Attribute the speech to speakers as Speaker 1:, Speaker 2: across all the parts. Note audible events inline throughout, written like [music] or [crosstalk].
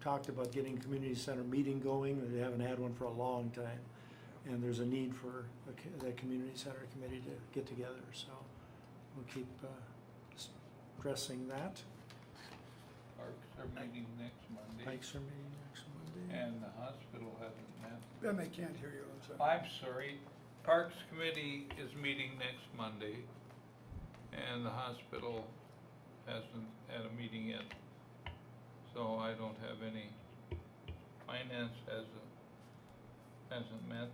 Speaker 1: talked about getting community center meeting going, they haven't had one for a long time. And there's a need for a co- that community center committee to get together, so we'll keep uh, s- stressing that.
Speaker 2: Parks are meeting next Monday,
Speaker 1: Mike's are meeting next Monday.
Speaker 2: and the hospital hasn't met.
Speaker 3: Then they can't hear you, I'm sorry.
Speaker 2: I'm sorry, Parks Committee is meeting next Monday, and the hospital hasn't had a meeting yet. So I don't have any, finance hasn't, hasn't met,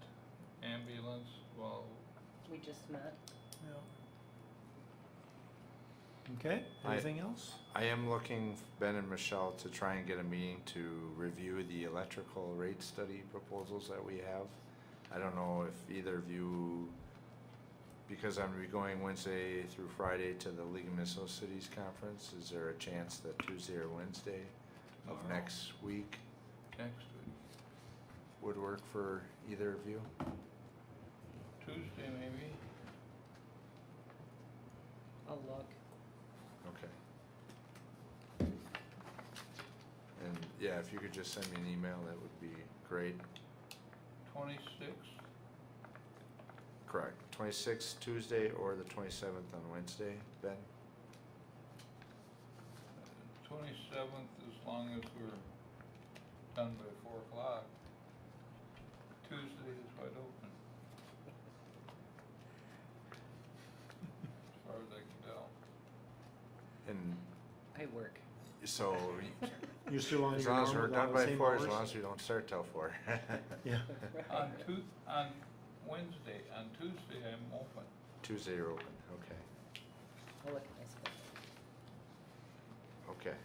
Speaker 2: ambulance, well,
Speaker 4: We just met.
Speaker 1: Yeah. Okay,
Speaker 5: I-
Speaker 1: anything else?
Speaker 5: I am looking, Ben and Michelle, to try and get a meeting to review the electrical rate study proposals that we have. I don't know if either of you, because I'm re- going Wednesday through Friday to the League of Minnesota Cities Conference, is there a chance that Tuesday or Wednesday of
Speaker 2: Tomorrow.
Speaker 5: next week
Speaker 2: next week,
Speaker 5: would work for either of you?
Speaker 2: Tuesday maybe?
Speaker 4: I'll look.
Speaker 5: Okay. And, yeah, if you could just send me an email, that would be great.
Speaker 2: Twenty-sixth,
Speaker 5: Correct. Twenty-sixth Tuesday or the twenty-seventh on Wednesday, Ben?
Speaker 2: twenty-seventh, as long as we're done by four o'clock. Tuesday is wide open. As far as I can tell.
Speaker 5: And
Speaker 4: I work. [laughs]
Speaker 5: so,
Speaker 1: You're still on
Speaker 5: as
Speaker 1: your
Speaker 5: long
Speaker 1: own
Speaker 5: as we're
Speaker 1: with all
Speaker 5: done
Speaker 1: the
Speaker 5: by
Speaker 1: same
Speaker 5: four, as
Speaker 1: hours?
Speaker 5: long as we don't start till four. [laughs]
Speaker 4: [laughs]
Speaker 1: Yeah,
Speaker 2: On Tu- on Wednesday, on Tuesday, I'm open.
Speaker 5: Tuesday you're open, okay,
Speaker 4: I'll look at my schedule.
Speaker 5: okay.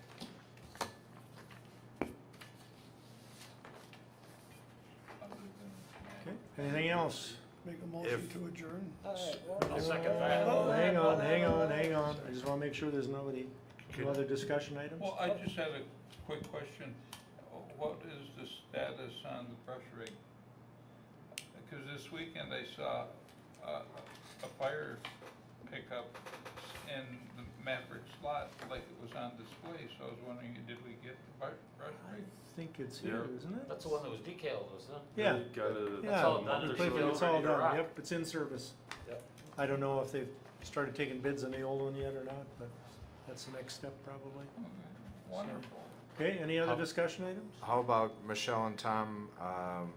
Speaker 2: other than
Speaker 1: okay,
Speaker 2: tonight.
Speaker 1: anything else?
Speaker 3: Make a motion
Speaker 5: If-
Speaker 3: to adjourn.
Speaker 4: I'll
Speaker 6: second that.
Speaker 1: Oh, Hang on, hang on, hang on, I just wanna make sure there's nobody, no other discussion items?
Speaker 2: Well, I just had a quick question. What is the status on the brush rig? Because this weekend I saw uh, a fire pickup in the Maverick slot, like it was on display, so I was wondering, did we get the brush brush
Speaker 1: I
Speaker 2: rig?
Speaker 1: think it's here, isn't it?
Speaker 6: That's the one that was decaled, wasn't it?
Speaker 1: Yeah,
Speaker 7: Got a-
Speaker 1: yeah.
Speaker 6: all done.
Speaker 1: it's
Speaker 6: There's
Speaker 1: played-
Speaker 6: no
Speaker 1: It's all
Speaker 6: ready to
Speaker 1: done,
Speaker 6: rock.
Speaker 1: yep, it's in service.
Speaker 6: Yep.
Speaker 1: I don't know if they've started taking bids on the old one yet or not, but that's the next step probably.
Speaker 2: Okay, Wonderful.
Speaker 1: Okay, any other
Speaker 5: How-
Speaker 1: discussion items?
Speaker 5: How about Michelle and Tom, um,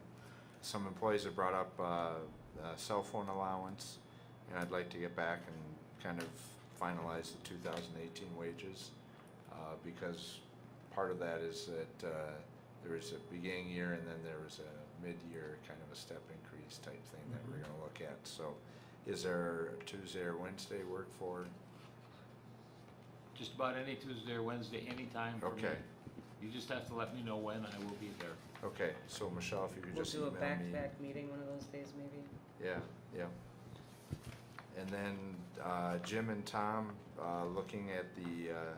Speaker 5: some employees have brought up, uh, uh, cell phone allowance. And I'd like to get back and kind of finalize the two thousand eighteen wages, uh, because part of that is that, uh, there is a beginning year and then there was a mid-year kind of a step increase type thing that we're gonna look at, so. Is there a Tuesday or Wednesday work for?
Speaker 6: Just about any Tuesday or Wednesday, anytime for me.
Speaker 5: Okay.
Speaker 6: You just have to let me know when, I will be there.
Speaker 5: Okay, so Michelle, if you could
Speaker 4: We'll
Speaker 5: just
Speaker 4: do
Speaker 5: email
Speaker 4: a
Speaker 5: me.
Speaker 4: back-to-back meeting one of those days, maybe.
Speaker 5: Yeah, yeah. And then, uh, Jim and Tom, uh, looking at the, uh,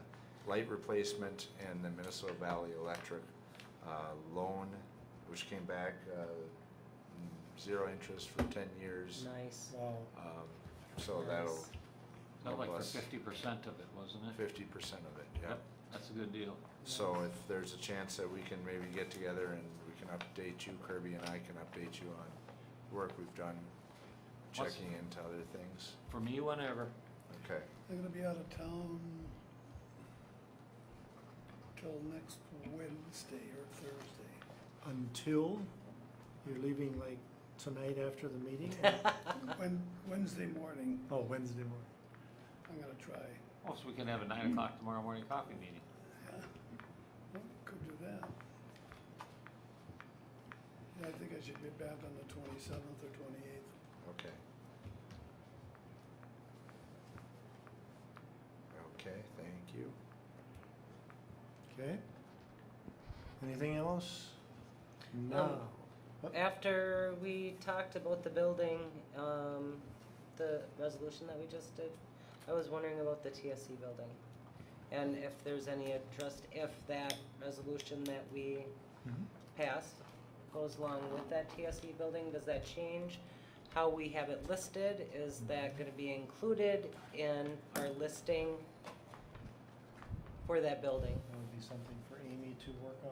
Speaker 5: light replacement and the Minnesota Valley Electric, uh, loan, which came back, uh, mm, zero interest for ten years.
Speaker 4: Nice.
Speaker 1: Wow,
Speaker 5: Um, so that'll,
Speaker 4: Nice.
Speaker 6: Not like for
Speaker 5: Bless.
Speaker 6: fifty percent of it, wasn't it?
Speaker 5: fifty percent of it, yeah.
Speaker 6: That's a good deal.
Speaker 5: So if there's a chance that we can maybe get together and we can update you, Kirby and I can update you on work we've done,
Speaker 6: What's-
Speaker 5: checking into other things,
Speaker 6: For me, whenever.
Speaker 5: okay?
Speaker 3: They're gonna be out of town till next Wednesday or Thursday.
Speaker 1: until you're leaving like tonight after the
Speaker 6: [laughs]
Speaker 1: meeting?
Speaker 3: When, Wednesday morning,
Speaker 1: Oh, Wednesday morning.
Speaker 3: I'm gonna try.
Speaker 6: Oh, so we can have a nine o'clock tomorrow morning coffee meeting.
Speaker 3: Yeah, Well, could do that. Yeah, I think I should be back on the twenty-seventh or twenty-eighth.
Speaker 5: Okay. Okay, thank you.
Speaker 1: Okay. Anything else? No.
Speaker 4: After we talked about the building, um, the resolution that we just did, I was wondering about the TSC building. And if there's any interest, if that resolution that we
Speaker 1: Mhm.
Speaker 4: passed goes along with that TSC building, does that change? How we have it listed, is that gonna be included in our listing for that building?
Speaker 1: That would be something for Amy to work on.